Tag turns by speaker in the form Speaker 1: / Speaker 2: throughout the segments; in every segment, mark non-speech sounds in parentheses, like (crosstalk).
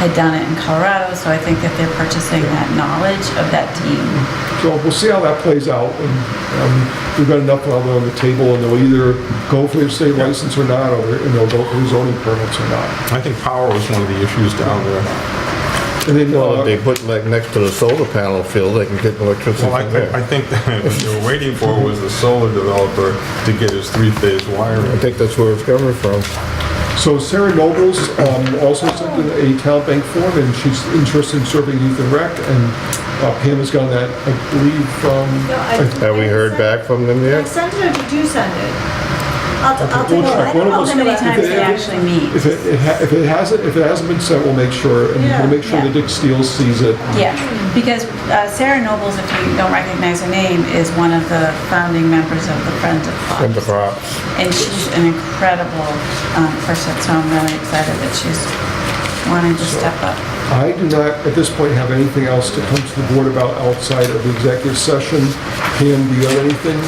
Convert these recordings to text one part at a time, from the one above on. Speaker 1: had done it in Colorado, so I think that they're purchasing that knowledge of that team.
Speaker 2: So we'll see how that plays out, and um, we've got enough of it on the table, and they'll either go for their state license or not, or and they'll go for their zoning permits or not.
Speaker 3: I think power was one of the issues down there.
Speaker 2: And then,
Speaker 4: Well,
Speaker 2: uh,
Speaker 4: if they put like next to the solar panel field, they can get electricity
Speaker 3: Well, I,
Speaker 4: from
Speaker 3: I- I
Speaker 4: there.
Speaker 3: think that what they were waiting for was the solar developer to get his three-phase
Speaker 4: I
Speaker 3: wiring.
Speaker 4: think that's where it's coming from.
Speaker 2: so Sarah Nobles um, also sent in a town bank form, and she's interested in serving youth and rec, and uh, Pam has gotten that, I believe, um,
Speaker 5: No,
Speaker 2: from,
Speaker 5: I-
Speaker 4: Have we heard back from them
Speaker 5: I
Speaker 4: yet?
Speaker 5: sent it or did you send it? I'll, t- I'll
Speaker 2: We'll
Speaker 5: take a
Speaker 2: check.
Speaker 5: look.
Speaker 2: One of
Speaker 1: How
Speaker 2: us-
Speaker 1: many times
Speaker 2: it-
Speaker 1: they actually meet?
Speaker 2: if it- it ha- if it hasn't, if it hasn't been sent, we'll make sure, and
Speaker 5: Yeah.
Speaker 2: we'll make sure that Dick Steele sees it.
Speaker 1: Yeah, because uh, Sarah Nobles, if you don't recognize her name, is one of the founding members of the Friends of
Speaker 4: From the
Speaker 1: Fox.
Speaker 4: crops.
Speaker 1: And she's an incredible um, person, so I'm really excited that she's wanting to step up.
Speaker 2: I do not, at this point, have anything else to come to the board about outside of the executive session. Pam, do you have anything?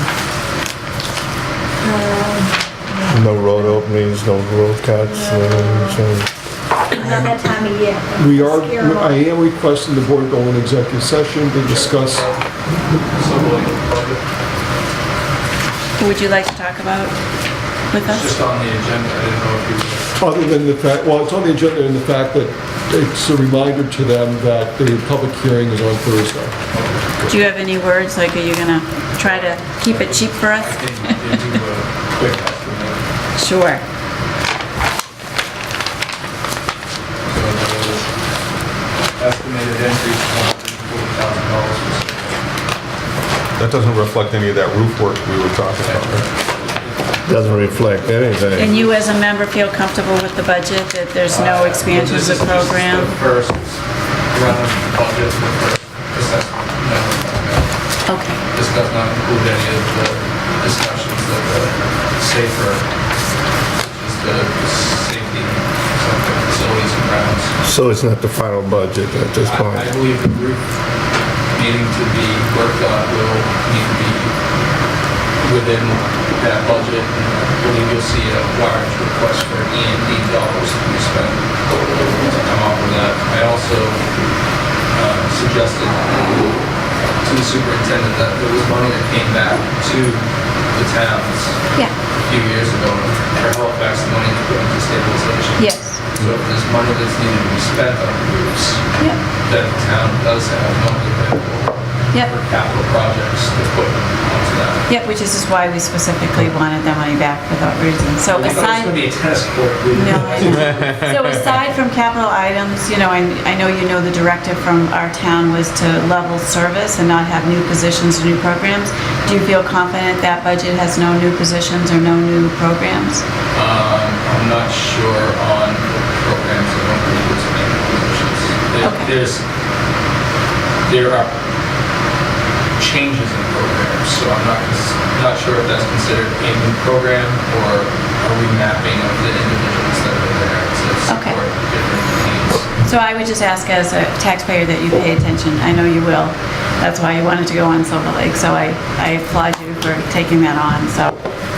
Speaker 4: No road openings, no road cuts, no, anything.
Speaker 5: It's not that time of year.
Speaker 2: We are,
Speaker 5: Scare 'em
Speaker 2: I
Speaker 5: off.
Speaker 2: am requesting the board go into executive session to discuss,
Speaker 1: Who would you like to talk about with us?
Speaker 6: Just on the agenda, I didn't know if you
Speaker 2: other than the fact, well, it's on the agenda and the fact that it's a reminder to them that the public hearing is on Thursday.
Speaker 1: Do you have any words, like, are you gonna try to keep it cheap for us?
Speaker 6: think you do a quick estimate.
Speaker 1: Sure.
Speaker 6: So there was estimated increase of $140,000.
Speaker 3: That doesn't reflect any of that roof work we were talking about, right?
Speaker 4: doesn't reflect anything.
Speaker 1: And you, as a member, feel comfortable with the budget, that there's no expansion of
Speaker 6: This
Speaker 1: the
Speaker 6: is just
Speaker 1: program?
Speaker 6: the first run of the budget, the first assessment. No, no, no.
Speaker 1: Okay.
Speaker 6: This does not include any of the discussions that the safer, is the safety, something, facilities and grounds.
Speaker 4: So it's not the final budget at this
Speaker 6: I I
Speaker 4: point.
Speaker 6: believe the group needing to be worked on will need to be within that budget. and I believe you'll see a large request for E and D dollars to be spent to come up with that. I also uh, suggested to the superintendent that there was money that came back to the towns
Speaker 1: Yeah.
Speaker 6: a few years ago for help backs money to put into stabilization.
Speaker 1: Yes.
Speaker 6: So if there's money that's needed to be spent on roofs,
Speaker 1: Yep.
Speaker 6: that the town does have money available
Speaker 1: Yep.
Speaker 6: for capital projects to put onto that.
Speaker 1: Yeah, which is just why we specifically wanted that money back for that reason. So
Speaker 6: I thought it was
Speaker 1: aside,
Speaker 6: gonna be a tennis court.
Speaker 1: (laughs) no, I
Speaker 6: (laughs)
Speaker 1: know. so aside from capital items, you know, I, I know you know the directive from our town was to level service and not have new positions or new programs. Do you feel confident that budget has no new positions or no new programs?
Speaker 6: Um, I'm not sure on the programs, I don't believe it's making decisions. There-
Speaker 1: Okay.
Speaker 6: There's, there are changes in programs, so I'm not, cons- not sure if that's considered a new program or a remapping of the individuals that are there to
Speaker 1: Okay.
Speaker 6: support different needs.
Speaker 1: So I would just ask as a taxpayer that you pay attention. I know you will. That's why you wanted to go on Silver Lake, so I, I applaud you for taking that on. So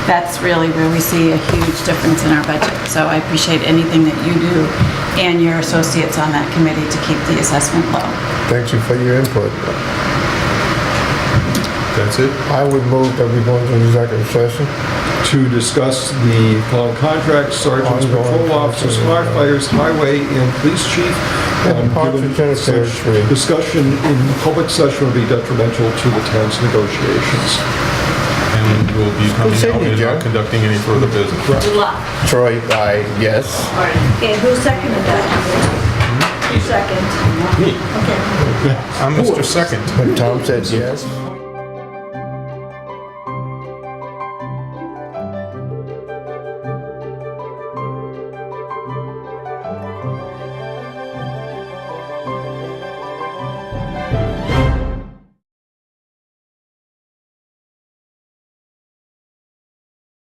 Speaker 1: that's really where we see a huge difference in our budget. So I appreciate anything that you do and your associates on that committee to keep the assessment low.
Speaker 4: Thank you for your input.
Speaker 3: That's it?
Speaker 4: I would move that we go into executive session.
Speaker 2: to discuss the following contracts, sergeants,
Speaker 4: Ongoing
Speaker 2: patrol officers,
Speaker 4: contract.
Speaker 2: firefighters, highway, and police chief.
Speaker 4: And
Speaker 2: Um,
Speaker 4: parks
Speaker 2: given
Speaker 4: and cemetery.
Speaker 2: such Discussion in public session would be detrimental to the town's negotiations.
Speaker 3: And we'll be coming
Speaker 4: said
Speaker 3: out
Speaker 4: you,
Speaker 3: and
Speaker 4: Joe?
Speaker 3: not conducting any further business.
Speaker 5: Good luck.
Speaker 4: Troy, I yes.
Speaker 5: Okay, who seconded that? You second. Okay.
Speaker 3: I'm Mr. Second.
Speaker 4: But Tom said yes.